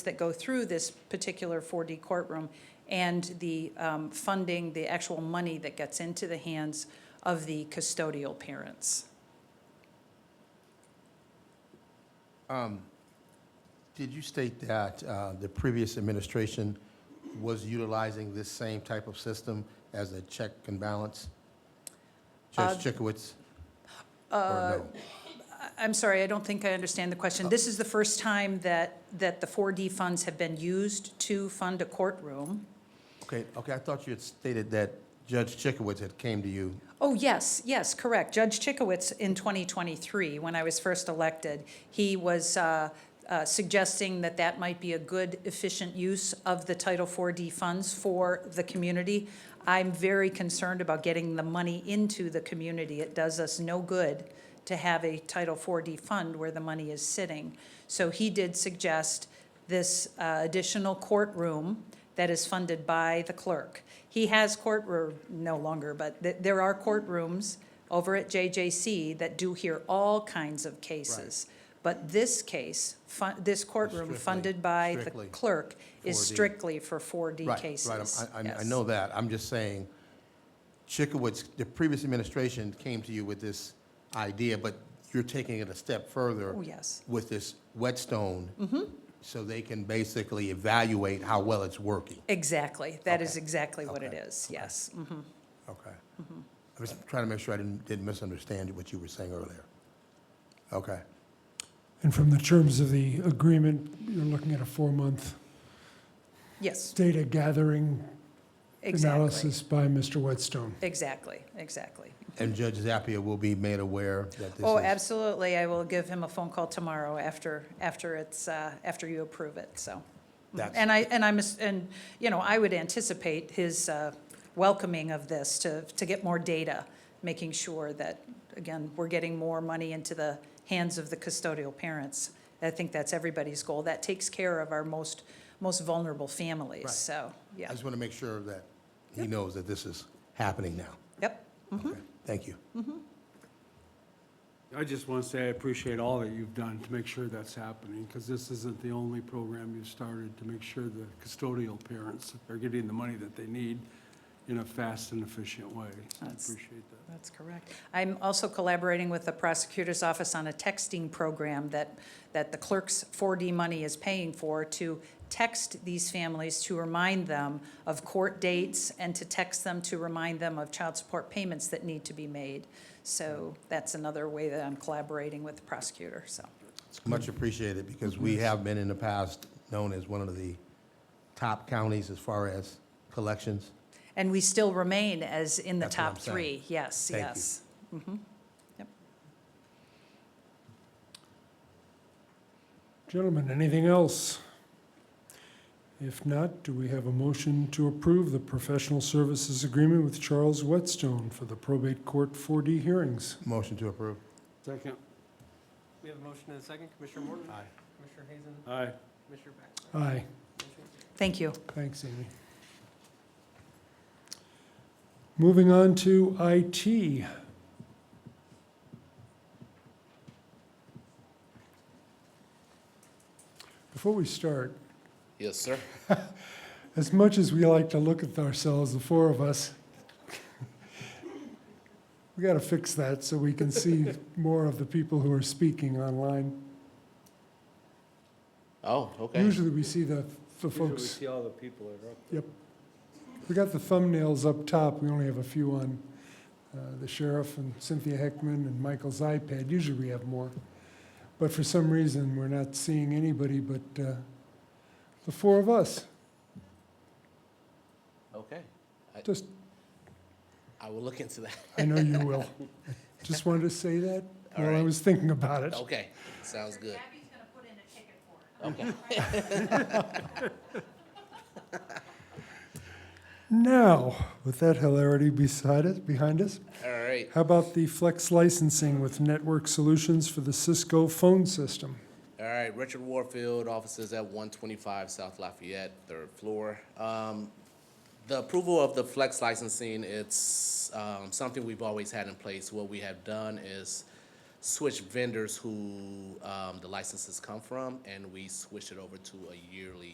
that go through this particular 4D courtroom and the um, funding, the actual money that gets into the hands of the custodial parents. Um, Did you state that uh, the previous administration was utilizing this same type of system as a check and balance? Judge Uh, Chikowitz? Or no? I- I'm sorry, I don't think I understand the question. This is the first time that, that the 4D funds have been used to fund a courtroom. Okay, okay, I thought you had stated that Judge Chikowitz had came to you. Oh, yes, yes, correct. Judge Chikowitz in 2023, when I was first elected, he was uh, uh, suggesting that that might be a good, efficient use of the Title IV-D funds for the community. I'm very concerned about getting the money into the community. It does us no good to have a Title IV-D fund where the money is sitting. So he did suggest this uh, additional courtroom that is funded by the clerk. He has courtroom, no longer, but th- there are courtrooms over at JJC that do hear all kinds of cases. But this case, fu- this courtroom Strictly- funded by the strictly clerk is 4D. strictly for 4D Right, cases. Right, I'm- I, I Yes. know that. I'm just saying, Chikowitz, the previous administration came to you with this idea, but you're taking it a step further. Oh, yes. With this whetstone. Mm-hmm. So they can basically evaluate how well it's working. Exactly. That is Okay. exactly what it Okay. is, yes. Mhm. Okay. Mm-hmm. I was trying to make sure I didn't, didn't misunderstand what you were saying earlier. Okay. And from the terms of the agreement, you're looking at a four-month Yes, data gathering exactly. analysis by Mr. Whetstone. Exactly, exactly. And Judge Zappia will be made aware that this Mm-hmm. Oh, is. absolutely. I will give him a phone call tomorrow after, after it's, uh, after you approve it, so. Mm. That's- And I, and I'm, and, you know, I would anticipate his uh, welcoming of this to, to get more data, making sure that, again, we're getting more money into the hands of the custodial parents. I think that's everybody's goal. That takes care of our most, most vulnerable Right. families, so, I yeah. just want to make sure that he knows that this is happening now. Yep. Okay. Thank you. I just want to say I appreciate all that you've done to make sure that's happening, because this isn't the only program you've started to make sure the custodial parents are getting the money that they need in a fast and efficient way. So I That's- appreciate that. That's correct. I'm also collaborating with the prosecutor's office on a texting program that, that the clerk's 4D money is paying for to text these families to remind them of court dates and to text them to remind them of child support payments that need to be made. So that's another way that I'm collaborating with the prosecutor, so. It's much appreciated because we Mm-hmm. have been in the past known as one of the top counties as far as collections. And we still remain as in the That's what I'm top three. Yes, Thank you. yes. Mm-hmm. Gentlemen, anything else? If not, do we have a motion to approve the professional services agreement with Charles Whetstone for the probate court 4D hearings? Motion to approve. Second, We have a motion and a second. Commissioner Morton? Aye. Commissioner Hazen? aye. Commissioner Baxter? Aye. Motion carries. Thank you. Thanks, Amy. Moving on to IT. Before we start, Yes, sir. as much as we like to look at ourselves, the four of us, we got to fix that so we can see more of the people who are speaking online. Oh, okay. Usually we see the, the folks. all the people that are up. We got the thumbnails up top, we only have a few on uh, the sheriff and Cynthia Heckman and Michael's iPad, usually we have more. But for some reason, we're not seeing anybody but uh, the four of us, Okay. just, I will look into that. I know you will. Just wanted to say that All while I right. was thinking about it. Okay. Sounds good. Abby's going to put in a ticket for it. Okay. Now, with that hilarity beside us, behind us, All right. how about the flex licensing with Network Solutions for the Cisco phone system? All right, Richard Warfield, offices at one twenty-five South Lafayette, third floor. Um, the approval of the flex licensing, it's, um, something we've always had in place. What we have done is switch vendors who um, the licenses come from, and we switched it over to a yearly